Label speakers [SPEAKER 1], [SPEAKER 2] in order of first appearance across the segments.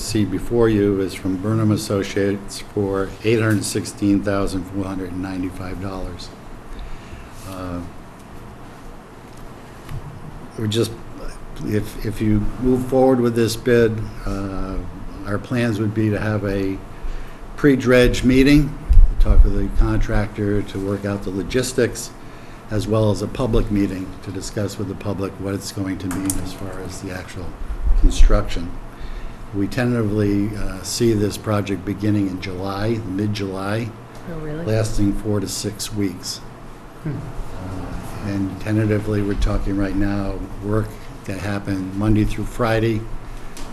[SPEAKER 1] see before you is from Burnham Associates for $816,495. Uh, We're just, if, if you move forward with this bid, uh, our plans would be to have a pre-dredge meeting, talk with the contractor to work out the logistics, as well as a public meeting to discuss with the public what it's going to mean as far as the actual construction. We tentatively uh, see this project beginning in July, mid-July,
[SPEAKER 2] Oh, really?
[SPEAKER 1] lasting four to six weeks. Uh, And tentatively, we're talking right now, work that happened Monday through Friday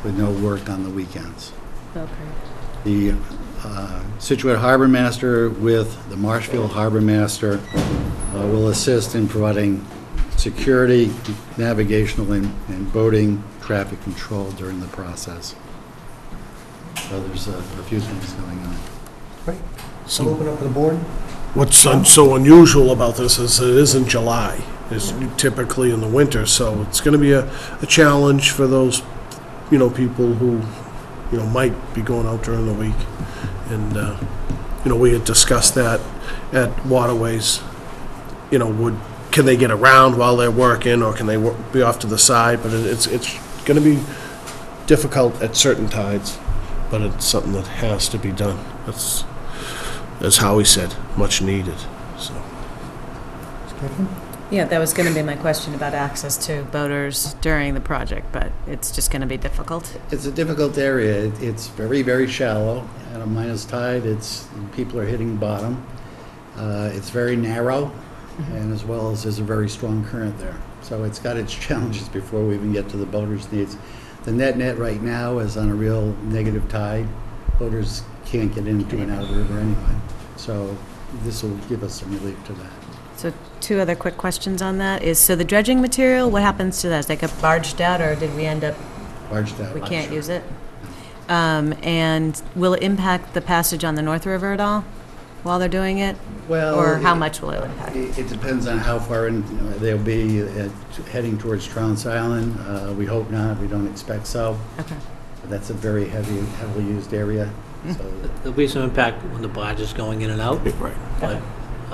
[SPEAKER 1] with no work on the weekends.
[SPEAKER 2] Okay.
[SPEAKER 1] The uh, Situate Harbor Master with the Marshfield Harbor Master uh, will assist in providing security, navigational, and and boating traffic control during the process. So there's a a few things going on.
[SPEAKER 3] Right. So open up to the board.
[SPEAKER 4] What's un- so unusual about this is it is in July. It's typically in the winter, so it's going to be a, a challenge for those, you know, people who, you know, might be going out during the week. And, uh, you know, we had discussed that at Waterways, you know, would, can they get around while they're working, or can they wo- be off to the side? But it- it's, it's going to be difficult at certain tides, but it's something that has to be done. That's, as Howie said, much needed. So,
[SPEAKER 3] Stefan?
[SPEAKER 2] Yeah, that was going to be my question about access to boaters during the project, but it's just going to be difficult.
[SPEAKER 1] It's a difficult area. It- It's very, very shallow. At a minus tide, it's, people are hitting bottom. Uh, It's very narrow,
[SPEAKER 2] Mm-hmm.
[SPEAKER 1] and as well as there's a very strong current there. So it's got its challenges before we even get to the boaters' needs. The net-net right now is on a real negative tide. Boaters can't get into and out of the river anyway. So this will give us some relief to that.
[SPEAKER 2] So two other quick questions on that is, so the dredging material, what happens to that? Does that get barged out, or did we end up,
[SPEAKER 1] Barge that.
[SPEAKER 2] we can't use it? Um, And will it impact the passage on the North River at all while they're doing it?
[SPEAKER 1] Well,
[SPEAKER 2] Or how much will it impact?
[SPEAKER 1] It it depends on how far in uh, they'll be at- heading towards Trounce Island. Uh, We hope not, we don't expect so.
[SPEAKER 2] Okay.
[SPEAKER 1] That's a very heavy, heavily used area,
[SPEAKER 5] Mm-hmm.
[SPEAKER 1] so
[SPEAKER 6] There'll be some impact when the barge is going in and out,
[SPEAKER 4] right.
[SPEAKER 6] but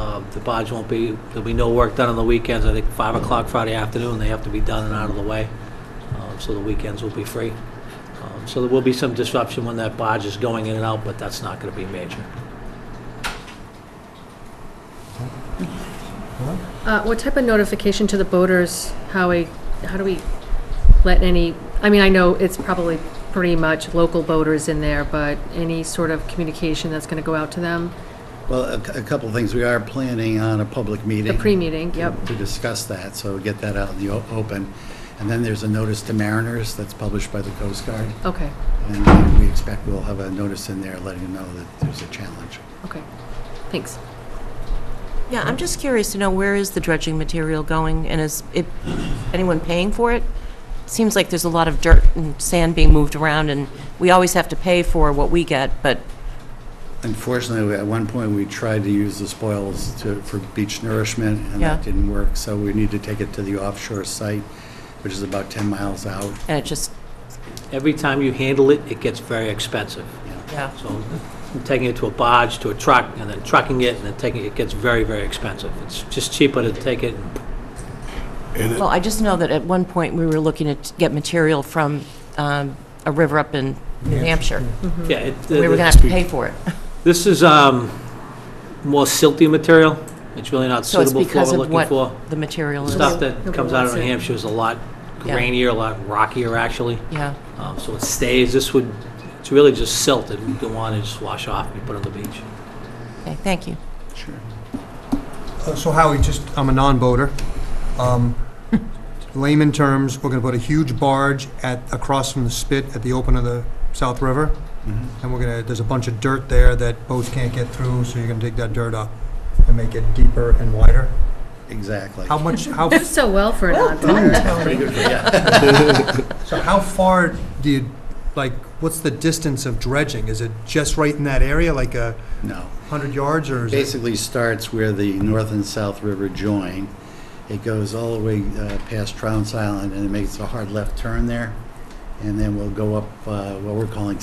[SPEAKER 6] um, the barge won't be, there'll be no work done on the weekends. I think 5 o'clock Friday afternoon, they have to be done and out of the way, Um, so the weekends will be free. Um, So there will be some disruption when that barge is going in and out, but that's not going to be major.
[SPEAKER 5] Uh, What type of notification to the boaters, how we, how do we let any, I mean, I know it's probably pretty much local boaters in there, but any sort of communication that's going to go out to them?
[SPEAKER 1] Well, a cou- a couple of things. We are planning on a public meeting.
[SPEAKER 5] The pre-meeting, yep.
[SPEAKER 1] To discuss that, so get that out in the o- open. And then there's a notice to mariners that's published by the Coast Guard.
[SPEAKER 5] Okay,
[SPEAKER 1] And we expect we'll have a notice in there letting them know that there's a challenge.
[SPEAKER 5] okay, thanks.
[SPEAKER 7] Yeah, I'm just curious to know where is the dredging material going, and is it, anyone paying for it? Seems like there's a lot of dirt and sand being moved around, and we always have to pay for what we get, but
[SPEAKER 1] Unfortunately, at one point, we tried to use the spoils to, for beach nourishment, and that
[SPEAKER 7] Yeah.
[SPEAKER 1] didn't work, so we need to take it to the offshore site, which is about 10 miles out.
[SPEAKER 7] and it just,
[SPEAKER 6] Every time you handle it, it gets very expensive.
[SPEAKER 7] yeah.
[SPEAKER 6] So taking it to a barge, to a truck, and then trucking it, and then taking, it it gets very, very expensive. It's just cheaper to take it and
[SPEAKER 4] And it,
[SPEAKER 7] Well, I just know that at one point, we were looking to t- get material from um, a river up in New Hampshire.
[SPEAKER 6] Yeah, it-
[SPEAKER 7] We were going to
[SPEAKER 6] the-
[SPEAKER 7] have to pay for it.
[SPEAKER 6] this is um, more silty material. It's really not
[SPEAKER 7] So it's
[SPEAKER 6] suitable for what
[SPEAKER 7] because
[SPEAKER 6] we're
[SPEAKER 7] of
[SPEAKER 6] looking
[SPEAKER 7] what
[SPEAKER 6] for.
[SPEAKER 7] the material is.
[SPEAKER 6] Stuff
[SPEAKER 5] Nobody
[SPEAKER 6] that comes out of New
[SPEAKER 5] wants it.
[SPEAKER 6] Hampshire is a lot
[SPEAKER 7] Yeah.
[SPEAKER 6] grainier, a lot rockier, actually.
[SPEAKER 7] Yeah,
[SPEAKER 6] Um, So it stays, this would, it's really just silt that we go on and just wash off and put on the beach.
[SPEAKER 7] okay, thank you.
[SPEAKER 1] Sure.
[SPEAKER 3] Uh, So Howie, just, I'm a non-boater. Um, Layman terms, we're going to put a huge barge at, across from the spit at the open of the South River,
[SPEAKER 1] Mm-hmm.
[SPEAKER 3] and we're going to, there's a bunch of dirt there that boats can't get through, so you're going to dig that dirt up and make it deeper and wider.
[SPEAKER 1] Exactly.
[SPEAKER 3] How much, how,
[SPEAKER 5] So well for a non-boater.
[SPEAKER 1] Pretty good for- yeah.
[SPEAKER 3] so how far do you, like, what's the distance of dredging? Is it just right in that area, like a
[SPEAKER 1] No.
[SPEAKER 3] 100 yards, or is it?
[SPEAKER 1] Basically starts where the North and South River join. It goes all the way uh, past Trounce Island, and it makes a hard left turn there, and then we'll go up uh, what we're calling